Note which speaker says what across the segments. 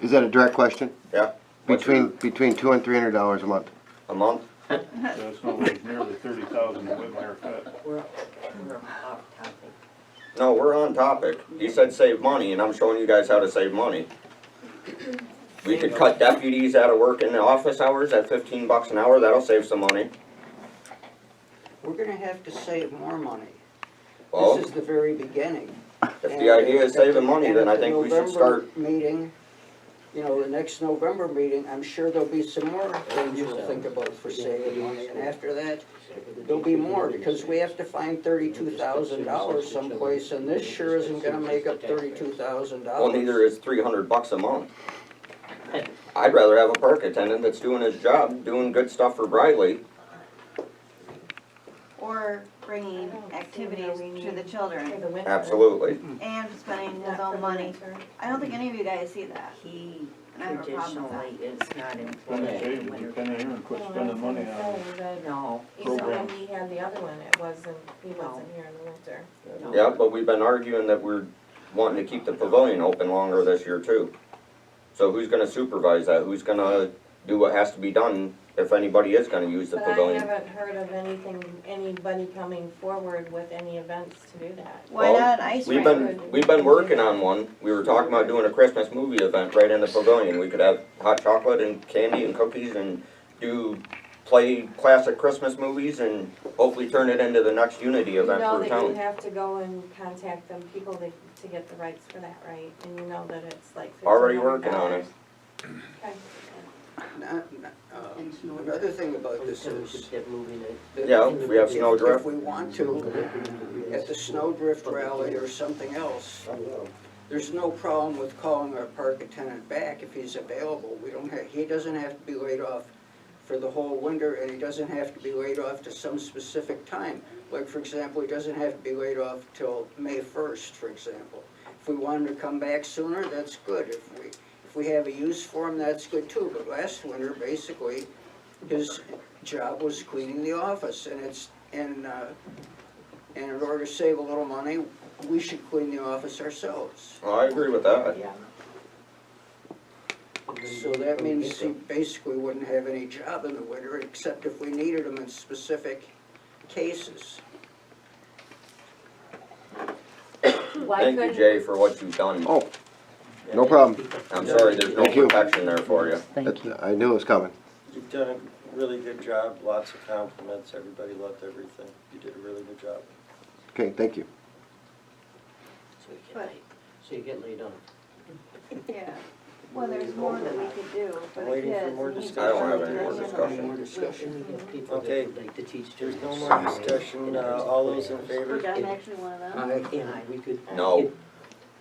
Speaker 1: Is that a direct question?
Speaker 2: Yeah. What's your-
Speaker 1: Between, between two and three hundred dollars a month.
Speaker 2: A month?
Speaker 3: So it's gonna be nearly thirty thousand to Whitmire cut.
Speaker 4: We're, we're off topic.
Speaker 2: No, we're on topic. You said save money, and I'm showing you guys how to save money. We could cut deputies out of work in the office hours at fifteen bucks an hour, that'll save some money.
Speaker 4: We're gonna have to save more money.
Speaker 2: Well,
Speaker 4: This is the very beginning.
Speaker 2: if the idea is saving money, then I think we should start,
Speaker 4: Meeting, you know, the next November meeting, I'm sure there'll be some more things we'll think about for saving money. And after that, there'll be more, because we have to find thirty-two thousand dollars someplace, and this sure isn't gonna make up thirty-two thousand dollars.
Speaker 2: well, neither is three hundred bucks a month. I'd rather have a park attendant that's doing his job, doing good stuff for Briley.
Speaker 5: or bringing activities to the children
Speaker 2: Absolutely.
Speaker 5: and spending his own money. I don't think any of you guys see that.
Speaker 6: He
Speaker 5: And I have a problem with that.
Speaker 6: traditionally is not
Speaker 3: Spend the
Speaker 6: employed in
Speaker 3: savings, you
Speaker 6: winter.
Speaker 3: come in here and quit spending money on
Speaker 6: No,
Speaker 7: Even when
Speaker 3: Programs.
Speaker 7: he had the other one, it wasn't, he wasn't here in the winter.
Speaker 6: no.
Speaker 2: Yeah, but we've been arguing that we're wanting to keep the pavilion open longer this year too. So who's gonna supervise that? Who's gonna do what has to be done if anybody is gonna use the
Speaker 7: But I
Speaker 2: pavilion?
Speaker 7: haven't heard of anything, anybody coming forward with any events to do that.
Speaker 5: Why
Speaker 2: Well,
Speaker 5: not an ice
Speaker 2: We've
Speaker 5: rink?
Speaker 2: been, we've been working on one. We were talking about doing a Christmas movie event right in the pavilion. We could have hot chocolate and candy and cookies and do, play classic Christmas movies and hopefully turn it into the next Unity
Speaker 7: You
Speaker 2: event
Speaker 7: know
Speaker 2: for the
Speaker 7: that you
Speaker 2: town.
Speaker 7: have to go and contact them, people to, to get the rights for that, right? And you know that it's like
Speaker 2: Already
Speaker 7: $1,500.
Speaker 2: working on it.
Speaker 7: Okay.
Speaker 4: Not- not, um, Another thing about this is. that
Speaker 2: Yeah, we have
Speaker 4: if-
Speaker 2: Snowdrift.
Speaker 4: If we want to, at the Snowdrift rally or something else, there's no problem with calling our park attendant back if he's available. We don't have, he doesn't have to be laid off for the whole winter, and he doesn't have to be laid off to some specific time. Like, for example, he doesn't have to be laid off till May first, for example. If we want him to come back sooner, that's good. If we, if we have a use for him, that's good too. But last winter, basically, his job was cleaning the office, and it's, and, uh, and in order to save a little money, we should clean the office ourselves.
Speaker 2: Well, Oh, I agree with that.
Speaker 7: Yeah.
Speaker 4: So that means he basically wouldn't have any job in the winter, except if we needed him in specific cases.
Speaker 2: Thank you, Jay, for what you've done.
Speaker 1: Oh, no problem.
Speaker 2: I'm sorry, there's no
Speaker 1: Thank you.
Speaker 2: protection there for you.
Speaker 1: That's, I knew it was coming.
Speaker 8: You've done a really good job, lots of compliments, everybody loved everything. You did a really good job.
Speaker 1: Okay, thank you.
Speaker 5: But,
Speaker 9: So you get laid on.
Speaker 5: yeah, well, there's more that we could do for the
Speaker 8: Waiting for
Speaker 5: kids.
Speaker 8: more
Speaker 5: and he's
Speaker 2: I don't have
Speaker 5: trying
Speaker 2: any more
Speaker 5: to handle it.
Speaker 2: discussion.
Speaker 4: More discussion.
Speaker 9: We have people that
Speaker 8: Okay.
Speaker 9: would like to teach.
Speaker 8: There's no
Speaker 9: children
Speaker 8: more
Speaker 9: science
Speaker 8: discussion,
Speaker 9: and
Speaker 8: uh,
Speaker 9: there's
Speaker 8: all those in
Speaker 9: programs.
Speaker 5: We're
Speaker 8: favor?
Speaker 5: done actually one of them.
Speaker 9: I, and I, we could. uh,
Speaker 2: No.
Speaker 9: get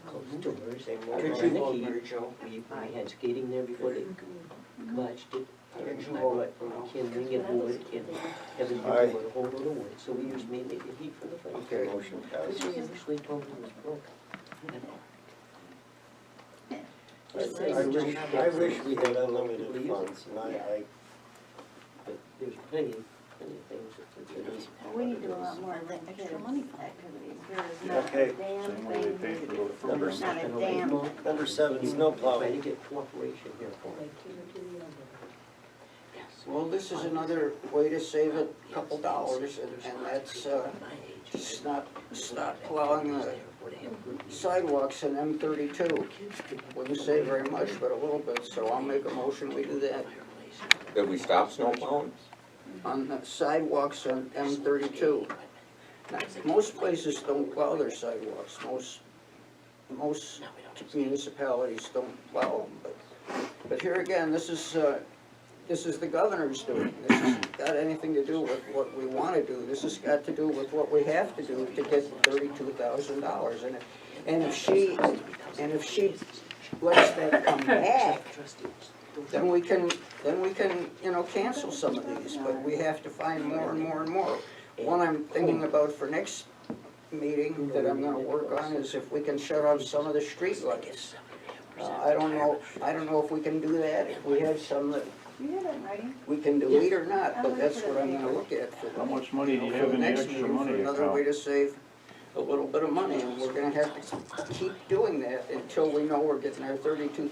Speaker 9: Closed doors and more
Speaker 4: Could you hold
Speaker 9: Nikki,
Speaker 4: Mary Jo?
Speaker 9: we, we had skating there before they clutched it.
Speaker 4: Could you hold it? No.
Speaker 9: Ken Ling and Wood and Kevin
Speaker 8: Aye.
Speaker 9: Hinkle would hold it away, so we used mainly the heat for the fire.
Speaker 4: Okay.
Speaker 8: Motion
Speaker 9: Which
Speaker 8: passes.
Speaker 9: we actually told them was broken.
Speaker 8: I I wish, I wish we had unlimited funds, and I, I,
Speaker 9: But there's plenty, plenty of things that could be.
Speaker 5: Well, We need to do a lot more extra money activities. There is not
Speaker 8: Okay.
Speaker 5: a damn
Speaker 3: Same way they pay
Speaker 5: thing.
Speaker 3: for those programs.
Speaker 5: Not a damn.
Speaker 8: number seven, snow
Speaker 9: Try to
Speaker 8: plowing.
Speaker 9: get cooperation here for it.
Speaker 4: Well, this is another way to save a couple dollars, and, and that's, uh, just not, stop plowing the sidewalks in M thirty-two. Wouldn't save very much, but a little bit, so I'll make a motion, we do that
Speaker 2: Did we stop snow plowing?
Speaker 4: on the sidewalks on M thirty-two. Now, Most places don't plow their sidewalks, most, most municipalities don't plow them, but, but here again, this is, uh, this is the governor's doing, this has got anything to do with what we wanna do, this has got to do with what we have to do to get thirty-two thousand dollars, and if, and if she, and if she lets that come back, then we can, then we can, you know, cancel some of these, but we have to find more and more and more. One I'm thinking about for next meeting that I'm gonna work on is if we can shut off some of the streetlights. Uh, I don't know, I don't know if we can do that, if we have some that
Speaker 5: You have it in writing?
Speaker 4: we can delete or not, but that's what I'm gonna look at for
Speaker 3: How
Speaker 4: the,
Speaker 3: much money do you
Speaker 4: for
Speaker 3: have
Speaker 4: the
Speaker 3: in the
Speaker 4: next
Speaker 3: extra
Speaker 4: meeting, for
Speaker 3: money
Speaker 4: another way
Speaker 3: account?
Speaker 4: to save a little bit of money, and we're gonna have to keep doing that until we know we're getting our thirty-two